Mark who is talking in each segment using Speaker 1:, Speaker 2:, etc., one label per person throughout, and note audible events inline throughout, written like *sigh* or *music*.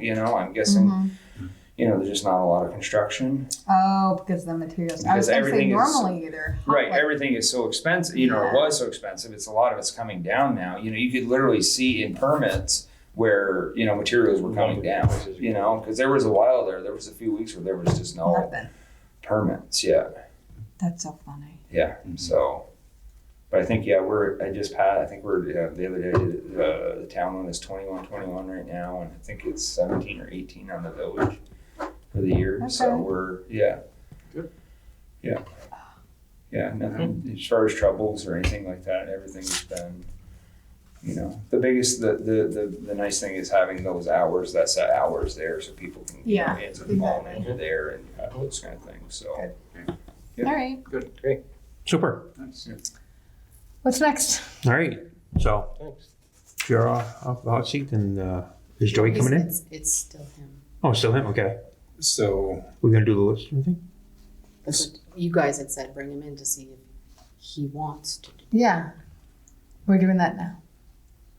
Speaker 1: You know, I'm guessing
Speaker 2: Mm-hmm.
Speaker 1: you know there's just not a lot of construction.
Speaker 2: Oh, because the materials. I
Speaker 1: Because
Speaker 2: was going to say
Speaker 1: everything is-
Speaker 2: normally either. hot
Speaker 1: right,
Speaker 2: like-
Speaker 1: everything is so expensive. You know,
Speaker 2: Yeah.
Speaker 1: it was so expensive. It's a lot of it's coming down now. You know, you could literally see in permits where you know materials were coming down. You know, because there was a while there, there was a few weeks where there was just no
Speaker 2: Nothing.
Speaker 1: permits. Yeah,
Speaker 2: That's so funny.
Speaker 1: yeah. So, but I think yeah, we're I just had I think we're uh, the other day uh, the town one is twenty one twenty one right now, and I think it's seventeen or eighteen on the village for the year. So
Speaker 2: Okay.
Speaker 1: we're yeah,
Speaker 3: Good.
Speaker 1: yeah, yeah. Nothing as far as troubles or anything like that. Everything's been. You know, the biggest, the, the, the, the nice thing is having those hours, that's the hours there so people can get
Speaker 2: Yeah,
Speaker 1: their hands involved and
Speaker 3: exactly.
Speaker 1: you're there and uh, those kind of things. So,
Speaker 2: Good.
Speaker 1: Yeah.
Speaker 2: All right.
Speaker 3: Good, great,
Speaker 4: Super.
Speaker 3: nice.
Speaker 2: What's next?
Speaker 4: All right. So
Speaker 3: Thanks.
Speaker 4: you're off, off the hot seat, and uh, is Joey coming in?
Speaker 5: It's, it's still him.
Speaker 4: Oh, still him. Okay.
Speaker 3: So,
Speaker 4: We're gonna do the list. You think?
Speaker 5: That's what you guys had said bring him in to see if he wants to do
Speaker 2: Yeah. We're doing that now.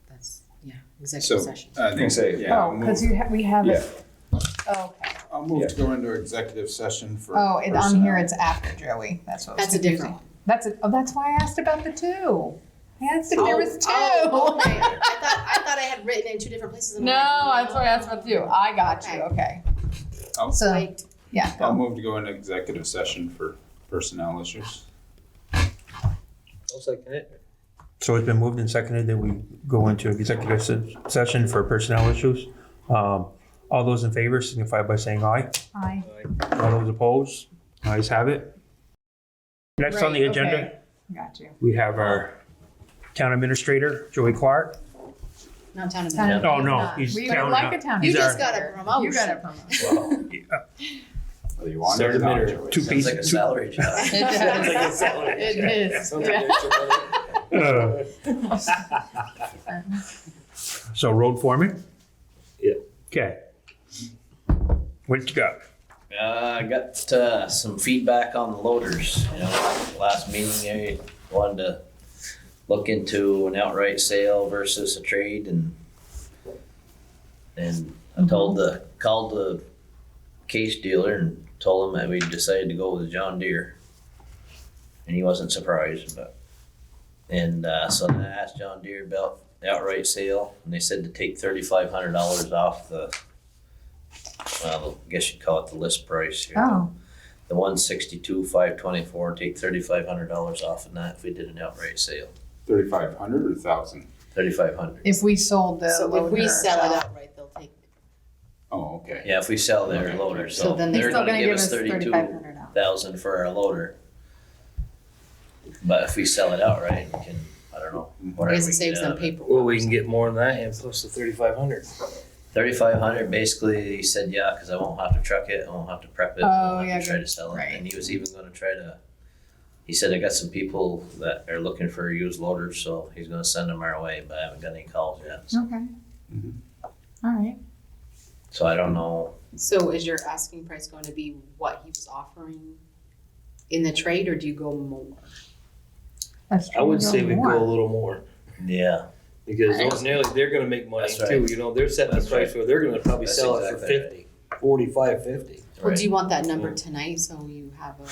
Speaker 5: that's yeah executive
Speaker 3: So,
Speaker 5: session.
Speaker 6: uh,
Speaker 3: I
Speaker 1: Think so.
Speaker 3: yeah, I'll
Speaker 2: oh, because
Speaker 3: move,
Speaker 2: you ha- we have
Speaker 1: yeah.
Speaker 2: it. Oh, okay.
Speaker 3: I'll move to go into executive session for.
Speaker 2: Oh, and on
Speaker 3: personnel.
Speaker 2: here it's after Joey. That's what.
Speaker 5: That's a
Speaker 2: was confusing.
Speaker 5: different one.
Speaker 2: That's a, oh, that's why I asked about the two. I asked if there was two.
Speaker 5: Oh,
Speaker 2: *laughs*
Speaker 5: okay. I thought I thought I had written in two different places. and
Speaker 2: No,
Speaker 5: I'm like,
Speaker 2: that's why I asked about the two. I got you. Okay.
Speaker 1: Oh.
Speaker 3: I'll-
Speaker 2: So
Speaker 5: Wait.
Speaker 2: yeah.
Speaker 3: I'll move to go into executive session for personnel issues.
Speaker 6: I'll second it.
Speaker 4: So it's been moved and seconded that we go into executive se- session for personnel issues. Um, all those in favor signify by saying aye.
Speaker 2: Hi.
Speaker 4: All those opposed, ayes have it. Next on the
Speaker 2: Right,
Speaker 4: agenda,
Speaker 2: okay. Got you.
Speaker 4: we have our town administrator Joey Clark.
Speaker 5: Not town of
Speaker 2: Town of-
Speaker 5: Milton.
Speaker 2: He's
Speaker 4: Oh no,
Speaker 2: not.
Speaker 4: he's
Speaker 2: We
Speaker 4: town.
Speaker 2: would like a town.
Speaker 5: You
Speaker 4: he's
Speaker 5: just
Speaker 4: our-
Speaker 5: got a promotion.
Speaker 2: You got a promotion.
Speaker 3: Whether you Oh, want it
Speaker 6: Sarah
Speaker 3: or not,
Speaker 6: Minter.
Speaker 3: Joey.
Speaker 4: Two
Speaker 6: Sounds
Speaker 4: piece-
Speaker 6: like a
Speaker 4: two-
Speaker 6: salary job.
Speaker 5: *laughs* It
Speaker 6: Sounds
Speaker 5: does.
Speaker 6: like a salary
Speaker 5: It
Speaker 6: job.
Speaker 5: is.
Speaker 6: Sounds
Speaker 5: Yeah.
Speaker 6: like extra money.
Speaker 4: Uh, So road foreman?
Speaker 6: Yeah.
Speaker 4: Okay. What you got?
Speaker 6: Uh, I got uh, some feedback on the loaders. You know, last meeting I wanted to look into an outright sale versus a trade, and and I told the called the case dealer and told him that we decided to go with a John Deere, and he wasn't surprised. But and uh, so then I asked John Deere about the outright sale, and they said to take thirty five hundred dollars off the. Well, I guess you'd call it the list price here
Speaker 2: Oh,
Speaker 6: the one sixty-two, five twenty-four, take thirty-five hundred dollars off of that if we did an outright sale,
Speaker 3: Thirty-five hundred or thousand?
Speaker 6: thirty-five hundred.
Speaker 2: if we sold the
Speaker 5: So if
Speaker 2: loader
Speaker 5: we sell it
Speaker 2: ourselves.
Speaker 5: outright, they'll take.
Speaker 3: Oh, okay.
Speaker 6: Yeah, if we sell their
Speaker 3: Okay.
Speaker 6: loader, so
Speaker 5: So then
Speaker 6: they're
Speaker 5: they're
Speaker 6: gonna give us
Speaker 2: thirty five
Speaker 6: thirty-two
Speaker 2: hundred dollars.
Speaker 6: thousand for our loader. But if we sell it outright, we can, I don't know,
Speaker 5: I
Speaker 6: whatever
Speaker 5: guess
Speaker 6: we
Speaker 5: it saves
Speaker 6: get out
Speaker 5: them
Speaker 6: of it.
Speaker 5: paperwork.
Speaker 6: Well,
Speaker 7: Well, we can get more than that and plus the thirty-five hundred.
Speaker 6: Thirty-five hundred, basically, he said, yeah, cause I won't have to truck it, I won't have to prep it, I
Speaker 2: Oh,
Speaker 6: won't
Speaker 2: yeah,
Speaker 6: have to try
Speaker 2: good.
Speaker 6: to sell it,
Speaker 2: Right.
Speaker 6: and he was even gonna try to. He said, I got some people that are looking for used loaders, so he's gonna send them our way, but I haven't got any calls yet, so.
Speaker 2: Okay.
Speaker 3: Mhm.
Speaker 7: Mm-hmm.
Speaker 2: All right.
Speaker 6: So I don't know.
Speaker 5: So is your asking price going to be what he was offering in the trade, or do you go more?
Speaker 2: That's
Speaker 7: I would say we go a
Speaker 2: more.
Speaker 7: little more
Speaker 6: Yeah.
Speaker 7: because ordinarily they're gonna make money
Speaker 6: That's
Speaker 7: too, you know, they're setting the
Speaker 6: That's
Speaker 7: price where they're gonna probably
Speaker 6: That's
Speaker 7: sell it for
Speaker 6: exactly right.
Speaker 7: fifty, forty-five, fifty.
Speaker 5: Or do
Speaker 6: Right.
Speaker 5: you want that number tonight so you have a?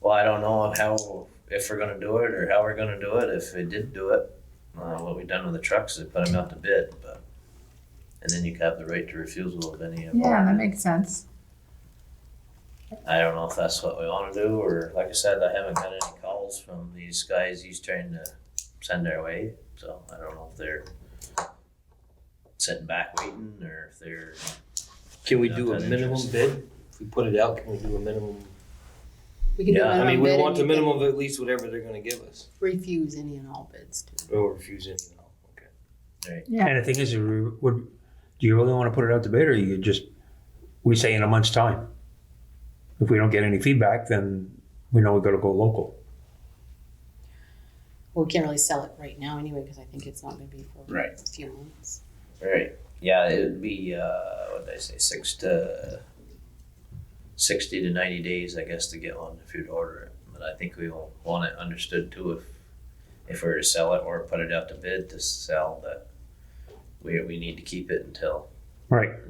Speaker 6: Well, I don't know how if we're gonna do it or how we're gonna do it. If we did do it, uh, what we done with the trucks, they put them out to bid, but and then you have the right to refusal of any of them.
Speaker 2: Yeah, that makes sense.
Speaker 6: I don't know if that's what we want to do or like I said, I haven't got any calls from these guys. He's trying to send our way, so I don't know if they're sitting back waiting or if they're
Speaker 7: Can we
Speaker 6: Not
Speaker 7: do a
Speaker 6: that
Speaker 7: minimum
Speaker 6: interesting.
Speaker 7: bid? If we put it out, can we do a minimum?
Speaker 5: We can do
Speaker 6: Yeah,
Speaker 5: a
Speaker 7: I
Speaker 5: minimum bid
Speaker 7: mean, we
Speaker 5: and
Speaker 7: want the
Speaker 5: you can
Speaker 7: minimum of at least whatever they're gonna give us,
Speaker 5: Refuse any and all bids too.
Speaker 7: or refuse any, and all. okay?
Speaker 2: Yeah.
Speaker 4: And the thing is, you would, do you really want to put it out to bid or you just, we say in a month's time? If we don't get any feedback, then we know we gotta go local.
Speaker 5: Well, we can't really sell it right now anyway, because I think it's not gonna be for
Speaker 3: Right.
Speaker 5: a few months.
Speaker 6: Right. Yeah, it would be uh, what did I say, six to sixty to ninety days, I guess, to get one if you'd order it. But I think we will want it understood too if if we were to sell it or put it out to bid to sell that we we need to keep it until
Speaker 4: Right.